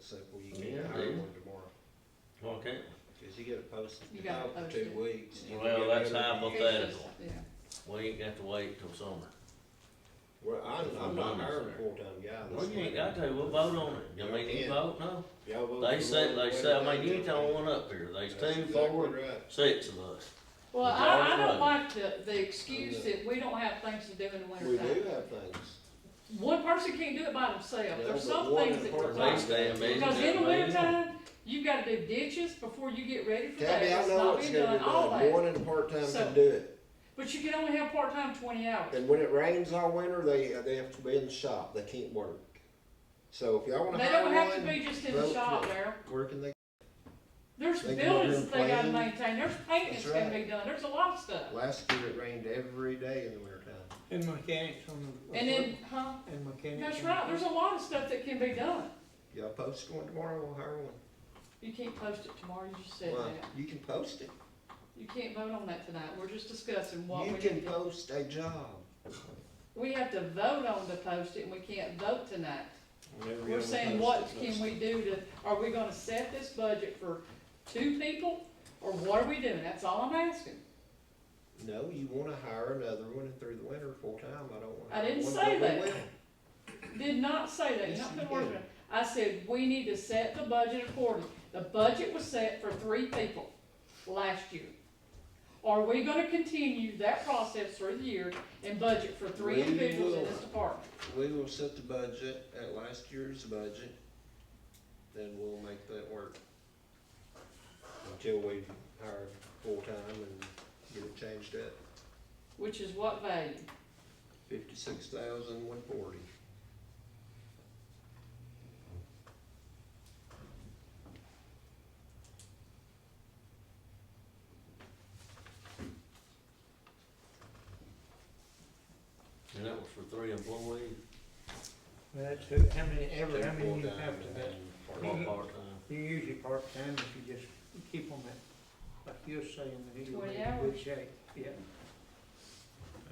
so before you can Yeah, hire dude. one tomorrow. Why can't Cause you gotta post You it gotta out for post two it. weeks. and you Well, gotta that's go to- how I'm gonna- Hypothetical. Yeah, we, we ain't got to wait till summer. Well, I'm, I'm not hiring a full-time guy. Well, you ain't got to, we'll vote on it. I mean, you vote, no? Y'all vote They for say, one they way say, or I mean, you ain't another. the only one up here. There's That's two, exactly four, right. six of us. well, It's I, I all don't like the, the excuse that we don't have things to do in the We winter time. do have things. One person can't do it by themselves, Yeah, there's but some one things that important They require. thing- stand busy. Because in the down there. winter time, you've gotta do ditches before you get ready for that, Tabby, I it's know not it's been gonna done, be all done, that. one and part-time So- can do it, But you can only have part-time twenty hours. and when it rains all winter, they, they have to be in the shop, they can't work. So if y'all wanna They hire one. don't have to be just in the vote shop, for it. Darryl. Working they, There's They can order buildings that they gotta plans. maintain, there's paint that's That's gonna right. be done, there's a lot of stuff. last year it rained every day in the wintertime. And mechanics on the. And then, huh, And mechanics. that's on right, the- there's a lot of stuff that can be done. Y'all post one tomorrow, we'll hire one. You can't post it tomorrow, you just said Well, that. You can post it, You can't vote on that tonight, we're just discussing what you we can can do. post a job. We have to vote on to post it, and we can't vote tonight. Whenever y'all We're saying, what post it, can post we do to, are we gonna set this budget for two people, or what are we doing? That's all I'm asking. it. No, you wanna hire another one through the winter full-time, I don't wanna. I didn't hire one, say but we that. will. Did not say that, Yes, not you the word. did. I said, we need to set the budget accordingly. The budget was set for three people last year. Are we gonna continue that process through the year and budget for three We individuals in this will. department? We will set the budget at last year's budget, then we'll make that work. Until we hire full-time and get it changed up, Which is what value? fifty-six thousand one forty. And that was for three employees, That's who, how many, ever, how many you have to that. one part-time. You usually part-time if you just keep them at, like you're saying, that you're 20 in good hours. shape, yeah.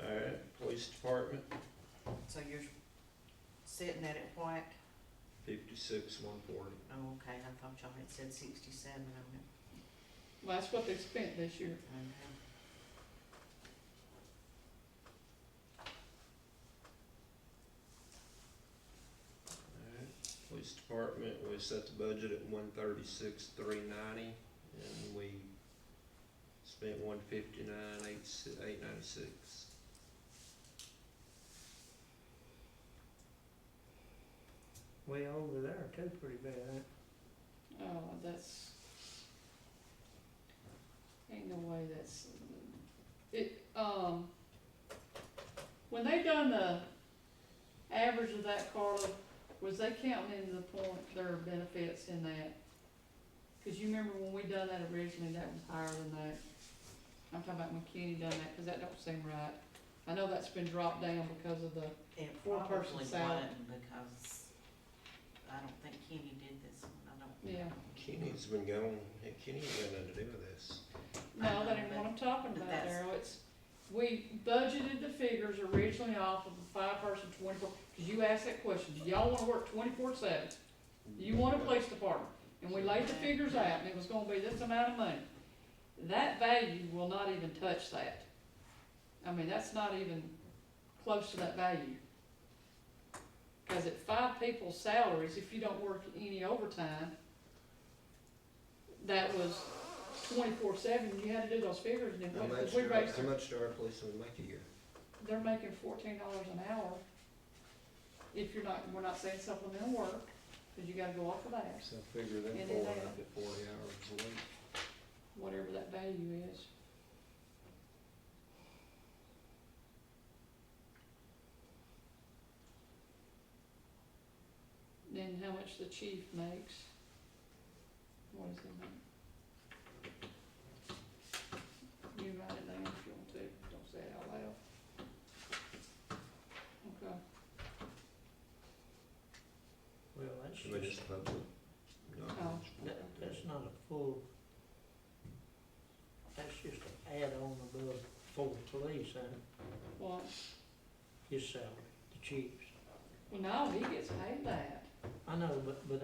Alright, police department, So you're sitting at it what? fifty-six one forty. Oh, okay, I thought y'all had said sixty-seven on it. Well, that's what they spent this year. Okay. Alright, police department, we set the budget at one thirty-six three ninety, and we spent one fifty-nine eight, eight ninety-six. Way over there too, pretty bad, huh? Oh, that's, ain't no way that's, it, um, when they done the average of that, Carla, was they counting in the point, their benefits in that? Cause you remember when we done that originally, that was higher than that. I'm talking about when Kenny done that, cause that don't seem right. I know that's been dropped down because of the, It Four probably person salad. wasn't because I don't think Kenny did this one, I don't. Yeah. Kenny's been gone, hey, Kenny ain't got nothing to do with this. No, that ain't what I'm talking But about, that's- Darryl, it's, we budgeted the figures originally off of a five-person twenty-four, cause you asked that question, do y'all wanna work twenty-four seven? You want a police department, and we laid the figures out, and it was gonna be this amount of money. That value will not even touch that. I mean, that's not even close to that value. Cause at five people's salaries, if you don't work any overtime, that was twenty-four seven, you had to do those figures, and then, How what- much, if we do our- raised, how much do our policemen make a year? they're making fourteen dollars an hour. If you're not, we're not saying supplemental work, cause you gotta go off of that. So figure them And four then they- up at forty hours a week. whatever that value is. Then how much the chief makes. What is it make? You write it down if you want to, don't say it out loud. Okay, Well, that's Should we just, just public? knowledge? Oh, that- that's not a full, that's just an add-on above full police, huh? well, His salary, the chief's. well, no, he gets paid that. I know, but, but